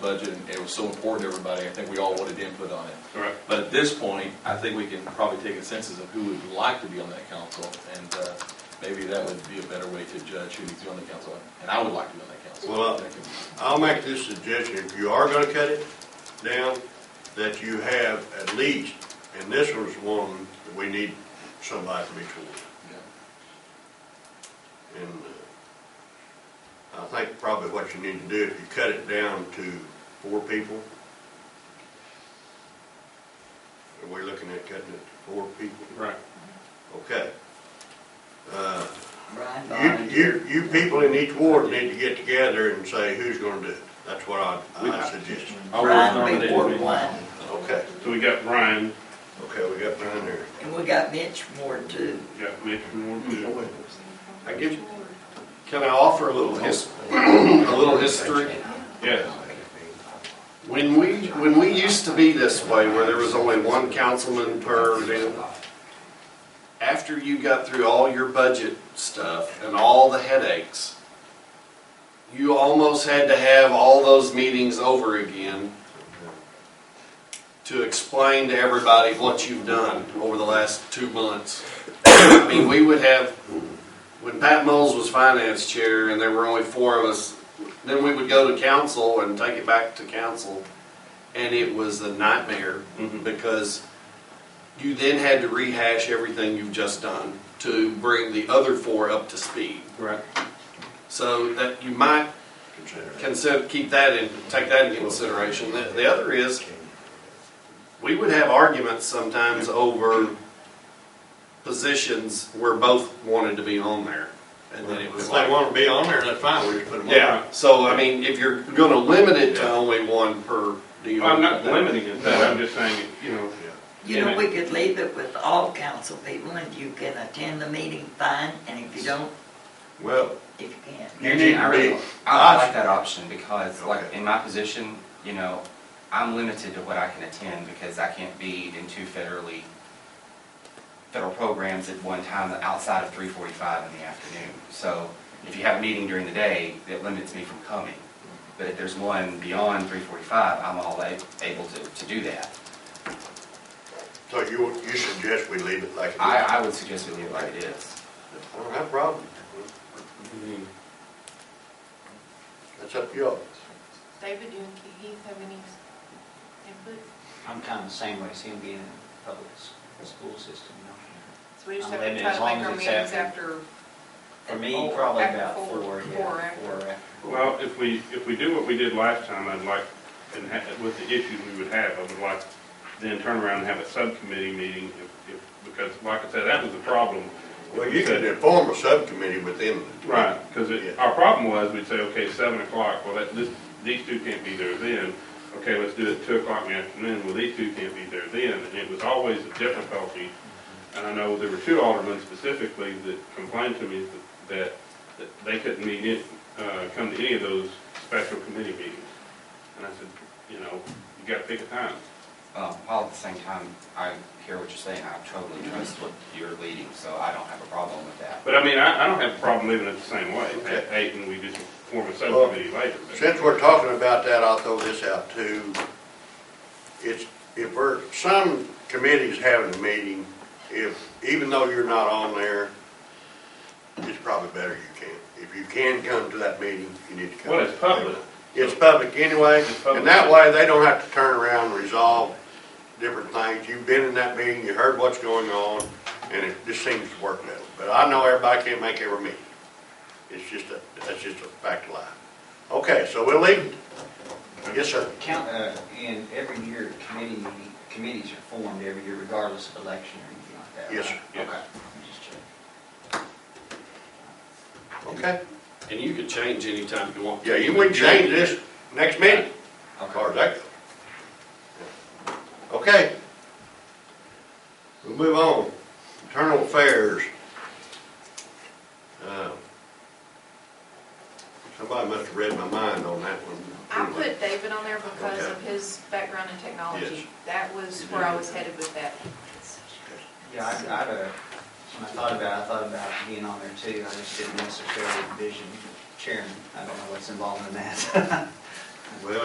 budget, and it was so important to everybody, I think we all wanted input on it. Correct. But at this point, I think we can probably take a census of who would like to be on that council, and uh, maybe that would be a better way to judge who needs to be on the council, and I would like to be on that council. Well, I'll make this suggestion, if you are gonna cut it down, that you have at least, and this was one that we need somebody from each one. And uh, I think probably what you need to do, if you cut it down to four people, are we looking at cutting it to four people? Right. Okay. Uh, Brian You, volunteered. you, you people in each ward need to get together and say who's gonna do it. That's what I, I suggest. Brian be Ward one, Okay, So we got Brian, okay, we got Brian there. and we got Mitch Ward two. we got Mitch Moore, too. Mm-hmm. I give, can I offer a little his, a little history. Yeah, When we, when we used to be this way, where there was only one councilman per event, after you got through all your budget stuff and all the headaches, you almost had to have all those meetings over again to explain to everybody what you've done over the last two months. I mean, we would have, when Pat Moles was finance chair and there were only four of us, then we would go to council and take it back to council. And it was a nightmare because you then had to rehash everything you've just done to bring the other four up to speed. right. So that you might Consider that. consider, keep that in, take that into consideration. The, the other is, we would have arguments sometimes over positions where both wanted to be on there. And then it was If like. they wanna be on there, that's fine, we just put them on. Yeah, so I mean, if you're gonna limit it to only one per Oh, deal. Well, I'm not limiting it, but I'm just saying, you know, You know, we could leave it with all council people, and you can attend the meeting, fine, and if you don't, Well, if you can't. You Actually, need I to really, be- I I I- like that option because like Okay. in my position, you know, I'm limited to what I can attend because I can't be in two federally, federal programs at one time outside of three forty-five in the afternoon. So if you have a meeting during the day, it limits me from coming. But if there's one beyond three forty-five, I'm all a- able to, to do that. so you, you suggest we leave it like it is? I, I would suggest we leave it like it is. I don't have a problem. Mm-hmm. That's up to y'all. David, do you and Keith have any input? I'm kind of the same way, seeing being in the public s- school system, you know. So we just I'm have to limited try as to long make as our meetings it's after- after. For me, four- probably after about four- four four, yeah, after. four after. well, if we, if we do what we did last time, I'd like, and ha- with the issues we would have, I would like then turn around and have a subcommittee meeting if, if, because like I said, that was the problem. Well, you can form a subcommittee within. the- Right, because Yeah. our problem was, we'd say, okay, seven o'clock, well, that, this, these two can't be there then. Okay, let's do it two o'clock in the afternoon, well, these two can't be there then, and it was always a difficulty. And I know there were two aldermen specifically that complained to me that- that, that they couldn't meet it, uh, come to any of those special committee meetings. And I said, you know, you gotta pick a time. Um, While at the same time, I hear what you're saying, I totally trust what you're leading, so I don't have a problem with that. But I mean, I, I don't have a problem living it the same way, at Okay. eight, and we just form a subcommittee later. but- Since we're talking about that, I'll throw this out too. It's, if we're, some committees having a meeting, if, even though you're not on there, it's probably better you can. If you can come to that meeting, you need to come. Well, it's public. It's public anyway, It's public. and that way they don't have to turn around and resolve different things. You've been in that meeting, you heard what's going on, and it just seems to work that way. But I know everybody can't make every meeting. It's just a, that's just a fact of life. Okay, so we'll leave. it. Yes, sir. Count, uh, and every year, committee, committees are formed every year regardless of election or anything like that, right? Yes, sir. Yes. Okay, I'm just checking. Okay. And you can change anytime you want. to. Yeah, you would change this next meeting, as Okay. far as that goes. Okay. We'll move on. Internal affairs. Uh, Somebody must have read my mind on that one. I put David on there because Okay. of his background in Yes. technology. That was where I was headed with that. Yeah, I, I, had a- when I thought about it, I thought about being on there too, I just didn't necessarily envision chairman, I don't know what's involved in that. Well,